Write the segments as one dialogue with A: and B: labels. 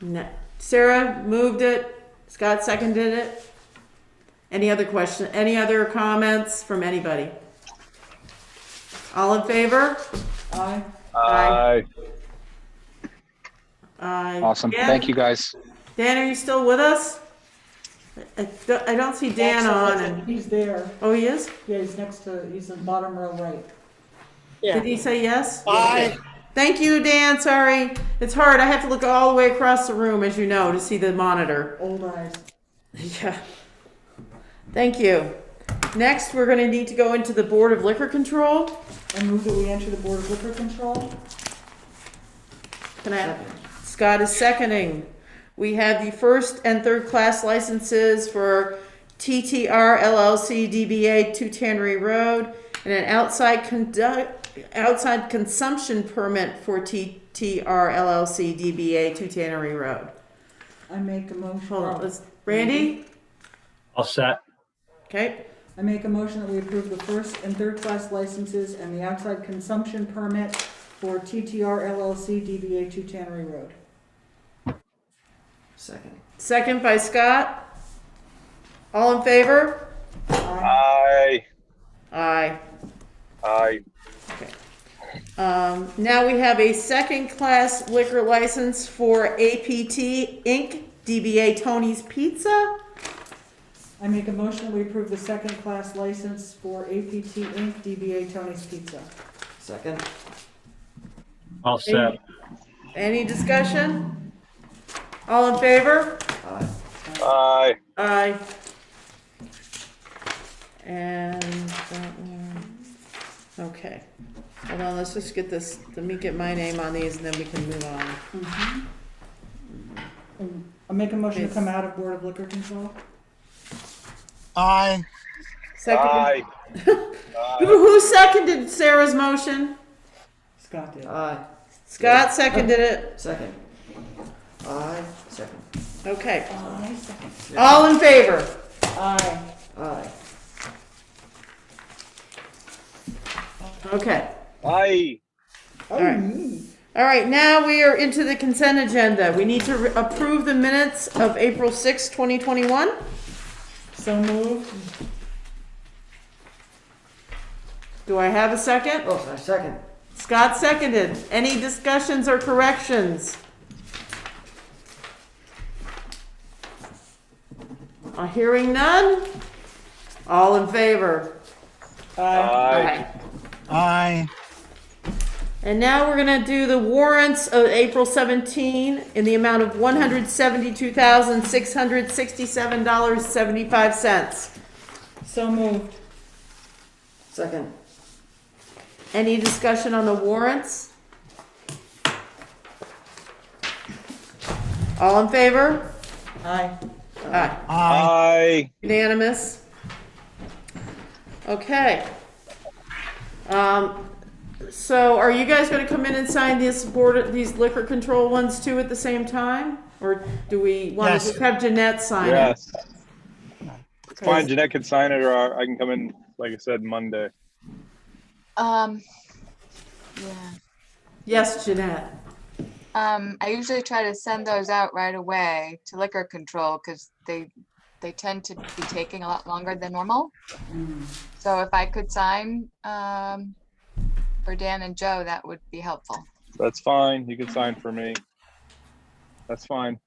A: No. Sarah moved it. Scott seconded it. Any other question, any other comments from anybody? All in favor?
B: Aye.
A: Aye.
C: Aye.
A: Aye.
C: Awesome.
A: Dan-
C: Thank you, guys.
A: Dan, are you still with us? I- I don't- I don't see Dan on and,
B: He's there.
A: oh, he is?
B: Yeah, he's next to, he's in bottom row right.
A: Did he say yes?
D: Aye.
A: Thank you, Dan, sorry. It's hard, I have to look all the way across the room, as you know, to see the monitor.
B: Old eyes.
A: Yeah. Thank you. Next, we're gonna need to go into the Board of Liquor Control.
B: I move that we enter the Board of Liquor Control.
A: Can I, Scott is seconding. We have the first and third class licenses for TTR LLC DBA Two Tannery Road and an outside conduct, outside consumption permit for TTR LLC DBA Two Tannery Road.
B: I make a motion.
A: Hold on, let's, Randy?
E: All set.
A: Okay,
B: I make a motion that we approve the first and third class licenses and the outside consumption permit for TTR LLC DBA Two Tannery Road.
A: second. Second by Scott. All in favor?
B: Aye.
C: Aye.
A: Aye.
C: Aye.
A: Um, now we have a second-class liquor license for APT Inc., DBA Tony's Pizza.
B: I make a motion that we approve the second class license for APT Inc., DBA Tony's Pizza.
D: Second.
E: All set.
A: Any discussion? All in favor?
D: Aye.
C: Aye.
A: Aye. And that one, okay. Hold on, let's just get this, let me get my name on these and then we can move on.
B: I make a motion to
A: Yes.
B: come out of Board of Liquor Control.
D: Aye.
A: Second, who who seconded Sarah's motion?
B: Scott did.
A: Uh,
D: Aye.
A: Scott seconded it,
D: Second. Aye. Second.
A: okay.
B: Aye, Uh, second.
A: All in favor?
B: Aye.
D: Aye.
A: Okay.
C: Aye.
B: Oh,
A: right.
B: me.
A: All right, now we are into the consent agenda. We need to re- approve the minutes of April sixth, twenty 2021.
B: So moved.
A: Do I have a second?
D: Oh, sorry, second.
A: Scott seconded. Any discussions or corrections? Uh, Hearing none? All in favor?
C: Aye.
F: Aye.
A: And now we're gonna do the warrants of April 17 in the amount of $172,667.75.
B: So moved.
D: Second.
A: Any discussion on the warrants? All in favor?
B: Aye.
A: Aye.
F: Aye.
C: Aye.
A: Unanimous? Okay. Um, so are you guys gonna come in and sign these board, these liquor control ones too at the same time? Or do we wanna
F: Yes.
A: just have Jeanette sign it?
C: Yes. Fine, Jeanette can sign it, or I can come in, like I said, Monday.
G: Um, yeah.
A: Yes, Jeanette.
G: Um, I usually try to send those out right away to liquor control because they, they tend to be taking a lot longer than normal. So if I could sign, um, for Dan and Joe, that would be helpful.
C: That's fine. You can sign for me. That's fine.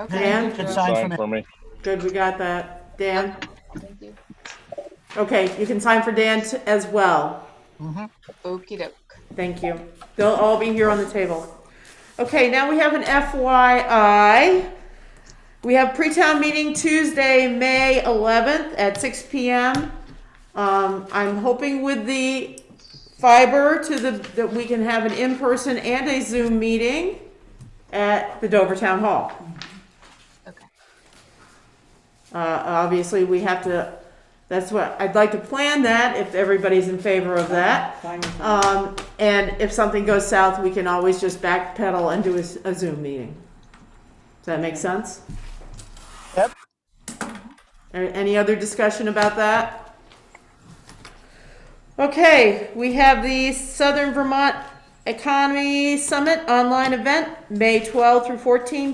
G: Okay.
A: Dan?
F: Dan can sign for me.
C: for me.
A: Good, we got that. Dan?
G: Thank you.
A: Okay, you can sign for Dan t- as well.
G: Okey doke.
A: Thank you. They'll all be here on the table. Okay, now we have an FYI. We have pre-town meeting Tuesday, May 11th at 6 PM. Um, I'm hoping with the fiber to the, that we can have an in-person and a Zoom meeting at the Dover Town Hall.
G: Okay.
A: Uh, obviously, we have to, that's what, I'd like to plan that if everybody's in favor of that.
B: Fine.
A: Um, and if something goes south, we can always just backpedal and do a, s- a Zoom meeting. Does that make sense?
F: Yep.
A: A- Any other discussion about that? Okay, we have the Southern Vermont Economy Summit online event, May 12 through 14,